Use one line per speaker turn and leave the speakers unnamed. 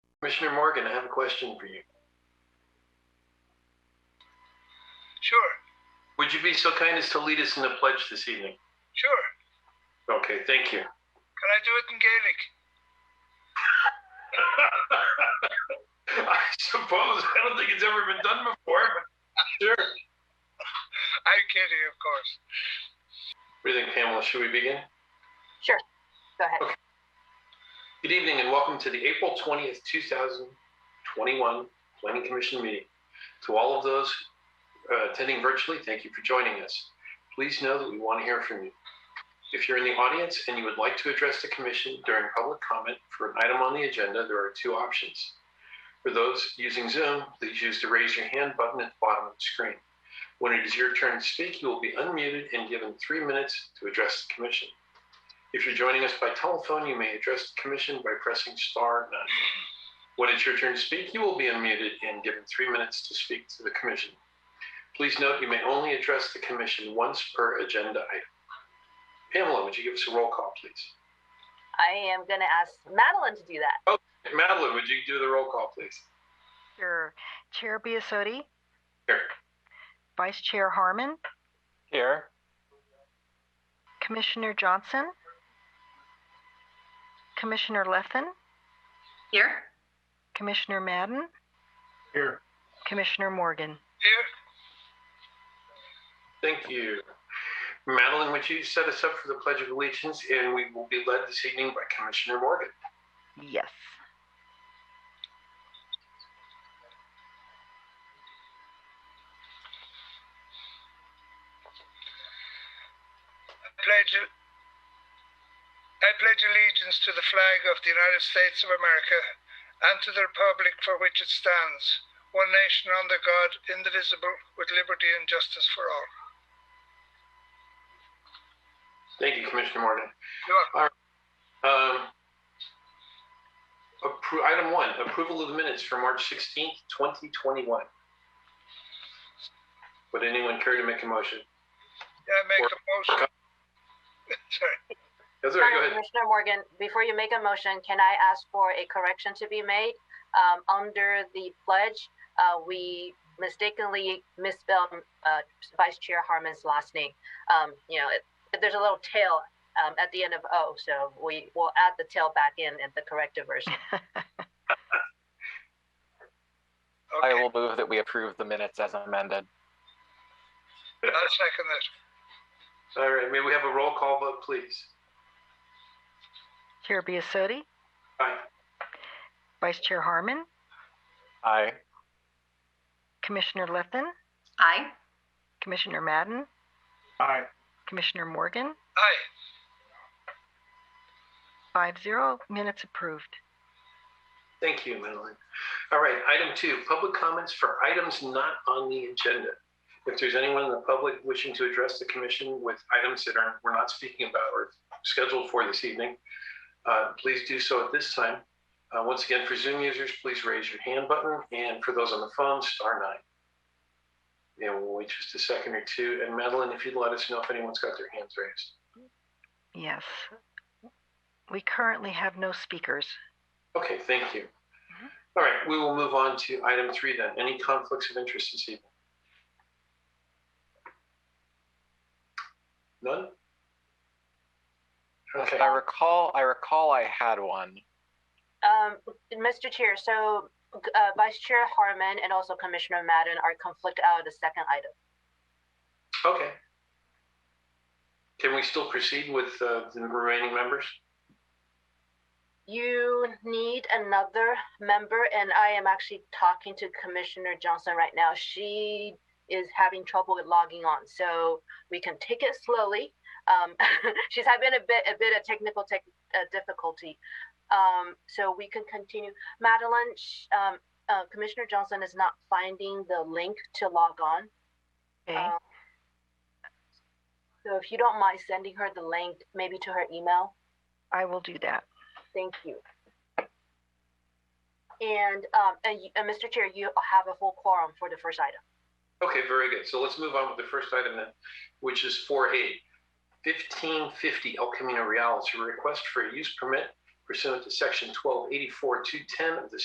Commissioner Morgan, I have a question for you.
Sure,
Would you be so kind as to lead us in the pledge this evening?
sure.
Okay, thank you.
Can I do it in Gaelic?
I suppose, I don't think it's ever been done before, but sure.
I'm kidding, of course.
What do you think, Pamela? Should we begin?
Sure, go ahead.
Good evening and welcome to the April 20th, 2021 Planning Commission meeting. To all of those uh, attending virtually, thank you for joining us. Please know that we want to hear from you. If you're in the audience and you would like to address the commission during public comment for an item on the agenda, there are two options. For those using Zoom, please use the raise your hand button at the bottom of the screen. When it is your turn to speak, you will be unmuted and given three minutes to address the commission. If you're joining us by telephone, you may address the commission by pressing star nine. When it's your turn to speak, you will be unmuted and given three minutes to speak to the commission. Please note you may only address the commission once per agenda item. Pamela, would you give us a roll call, please?
I am gonna ask Madeline to do that.
Madeline, would you do the roll call, please?
Sure. Chair Biasotti?
Here.
Vice Chair Harmon?
Here.
Commissioner Johnson? Commissioner Lethen?
Here.
Commissioner Madden?
Here.
Commissioner Morgan?
Here,
Thank you. Madeline, would you set us up for the Pledge of Allegiance? And we will be led this evening by Commissioner Morgan.
Yes.
I pledge, I pledge allegiance to the flag of the United States of America and to the republic for which it stands, one nation under God, indivisible, with liberty and justice for all.
Thank you, Commissioner Morgan.
You're welcome.
Um, appro- Item one, approval of the minutes for March 16th, 2021. Would anyone care to make a motion?
Yeah, I make a motion. Sorry.
That's all right, go ahead.
Commissioner Morgan, before you make a motion, can I ask for a correction to be made? Um, under the pledge, uh, we mistakenly misspelled, uh, Vice Chair Harmon's last name. Um, you know, it, there's a little tail, um, at the end of O, so we will add the tail back in at the corrected version.
I
Okay,
will move that we approve the minutes as amended.
I'll second that.
All right, may we have a roll call vote, please?
Chair Biasotti?
Aye.
Vice Chair Harmon?
Aye.
Commissioner Lethen?
Aye.
Commissioner Madden?
Aye.
Commissioner Morgan?
Aye,
Five zero, minutes approved.
Thank you, Madeline. All right, item two, public comments for items not on the agenda. If there's anyone in the public wishing to address the commission with items that are, we're not speaking about or scheduled for this evening, uh, please do so at this time. Uh, Once again, for Zoom users, please raise your hand button, and for those on the phone, star nine. And we'll wait just a second or two. And Madeline, if you'd let us know if anyone's got their hands raised.
Yes. We currently have no speakers.
Okay, thank you. All right, we will move on to item three then. Any conflicts of interest this evening? None? Okay,
I recall. I recall. I had one.
Um, Mr. Chair, so, uh, Vice Chair Harmon and also Commissioner Madden are conflict out of the second item.
okay. Can we still proceed with uh, the remaining members?
You need another member, and I am actually talking to Commissioner Johnson right now. She is having trouble with logging on, so we can take it slowly. Um, she's having a bit, a bit of technical tech, uh, difficulty. Um, so we can continue. Madeline, sh- um, uh, Commissioner Johnson is not finding the link to log on.
Okay,
Um, So if you don't mind sending her the link, maybe to her email.
I will do that.
Thank you. And, um, and, you- and Mr. Chair, you have a full quorum for the first item.
Okay, very good. So let's move on with the first item then, which is four A. Fifteen fifty El Camino Real is a request for a use permit pursuant to section twelve eighty-four two ten of the